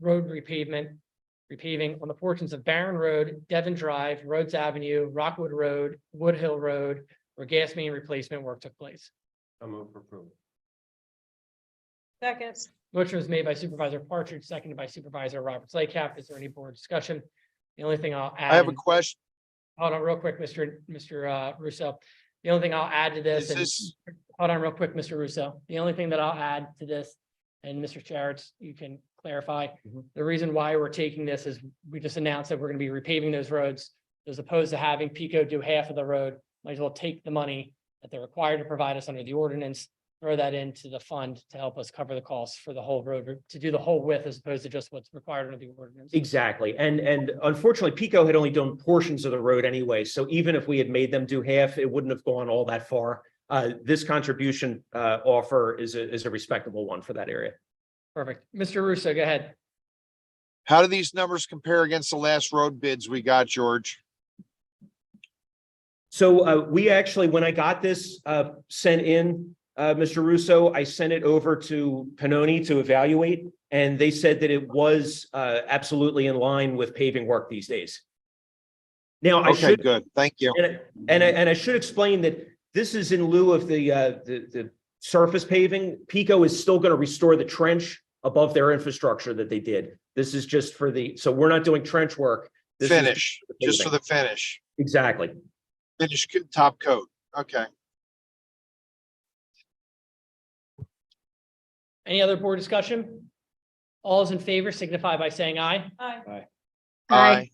road repavement, repaving on the portions of Barron Road, Devon Drive, Rhodes Avenue, Rockwood Road, Wood Hill Road, where gas main replacement work took place. I'm over for approval. Second. Motion was made by Supervisor Partridge, seconded by Supervisor Roberts Laycap. Is there any board discussion? The only thing I'll add. I have a and- question. Hold on real quick, Mr. Mr. uh, Russo. The only thing I'll add to this Is and this, hold on real quick, Mr. Russo. The only thing that I'll add to this and Mr. Charitz, you can clarify. Mm-hmm. Mhm. The reason why we're taking this is we just announced that we're going to be repaving those roads. As opposed to having Pico do half of the road, might as well take the money that they're required to provide us under the ordinance, throw that into the fund to help us cover the costs for the whole road, to do the whole width as opposed to just what's required under the ordinance. Exactly. And, and unfortunately, Pico had only done portions of the road anyway. So even if we had made them do half, it wouldn't have gone all that far. Uh, this contribution, uh, offer is a, is a respectable one for that area. Perfect. Mr. Russo, go ahead. how do these numbers compare against the last road bids we got, George? So uh, we actually, when I got this uh, sent in, uh, Mr. Russo, I sent it over to Panoni to evaluate, and they said that it was uh, absolutely in line with paving work these days. Now, I Okay, should, good. Thank you. and I- and I, and I should explain that this is in lieu of the, uh, the, the surface paving. Pico is still going to restore the trench above their infrastructure that they did. This is just for the, so we're not doing trench work. This is- Finish, just for the finish, Exactly. finish co- top coat. Okay. Any other board discussion? All is in favor signify by saying aye. Aye. Aye.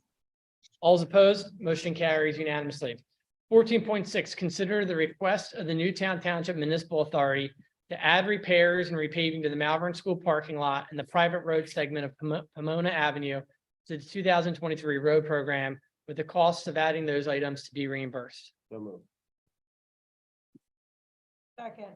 All is opposed, motion carries unanimously. Fourteen point six, consider the request of the Newtown Township Municipal Authority to add repairs and repaving to the Malvern School parking lot and the private road segment of Pomo- Pomona Avenue to the two thousand twenty-three road program with the costs of adding those items to be reimbursed. So moved. Second.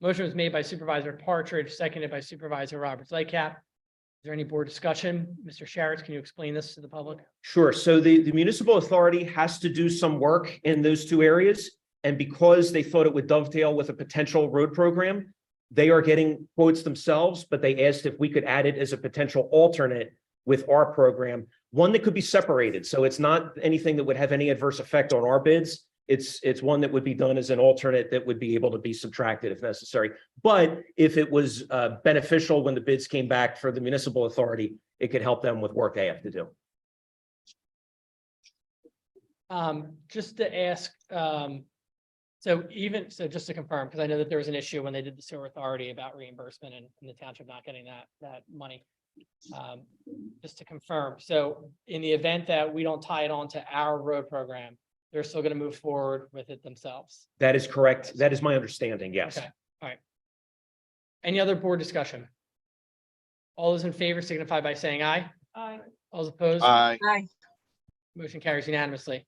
Motion was made by Supervisor Partridge, seconded by Supervisor Roberts Lightcap. Is there any board discussion? Mr. Sharretts, can you explain this to the public? Sure. So the, the municipal authority has to do some work in those two areas. And because they thought it would dovetail with a potential road program, they are getting quotes themselves, but they asked if we could add it as a potential alternate with our program, one that could be separated. So it's not anything that would have any adverse effect on our bids. It's, it's one that would be done as an alternate that would be able to be subtracted if necessary. But if it was uh, beneficial when the bids came back for the municipal authority, it could help them with work they have to do. Um, just to ask, um, so even, so just to confirm, because I know that there was an issue when they did the sewer authority about reimbursement and, and the township not getting that, that money. Um, just to confirm, so in the event that we don't tie it on to our road program, they're still gonna move forward with it themselves. That is correct. That is my understanding, yes. Okay, all right. Any other board discussion? All those in favor signify by saying aye. Aye. All those opposed? Aye. Motion carries unanimously.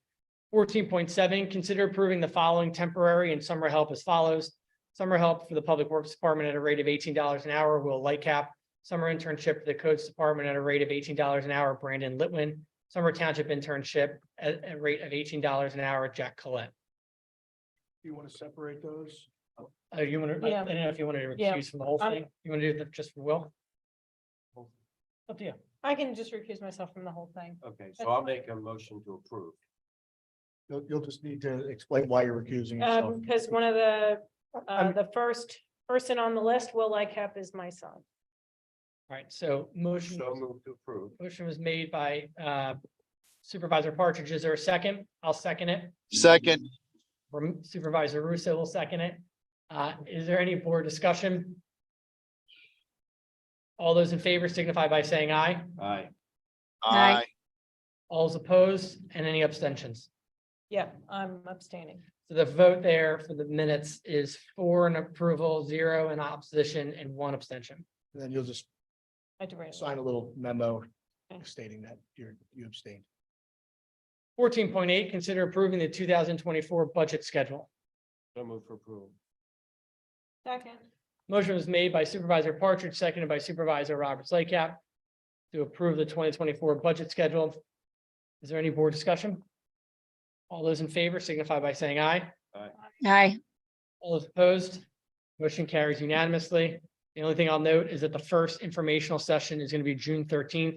Fourteen point seven, consider approving the following temporary and summer help as follows. Summer help for the Public Works Department at a rate of eighteen dollars an hour, Will Lightcap. Summer internship for the Codes Department at a rate of eighteen dollars an hour, Brandon Litwin. Summer township internship at a rate of eighteen dollars an hour, Jack Collette. You want to separate those? Uh, you want to, I Yeah. don't know if you wanted to Yeah. recuse from the whole I'm- thing. You want to do that just for Will? Up to you. I can just recuse myself from the whole thing. Um, Okay, That's so I'll fine. make a motion to approve. You'll, you'll just need to explain why you're recusing yourself. Um, because one of the, uh, I'm- the first person on the list, Will Lightcap, is my son. All right, so motion. So move to approve. Motion was made by uh, Supervisor Partridge. Is there a second? I'll second it. Second, Rem- Supervisor Russo will second it. Uh, Is there any board discussion? All those in favor signify by saying aye. Aye. aye. All is opposed and any abstentions? Yeah, I'm abstaining. So the vote there for the minutes is four in approval, zero in opposition, and one abstention. And Then you'll just I had to write. it. sign a little memo Okay. stating that you're, you abstained. Fourteen point eight, consider approving the two thousand twenty-four budget schedule. So move for approval. Second. Motion was made by Supervisor Partridge, seconded by Supervisor Roberts Laycap to approve the twenty twenty-four budget schedule. Is there any board discussion? All those in favor signify by saying aye. Aye. All those opposed, motion carries unanimously. The only thing I'll note is that the first informational session is going to be June thirteenth.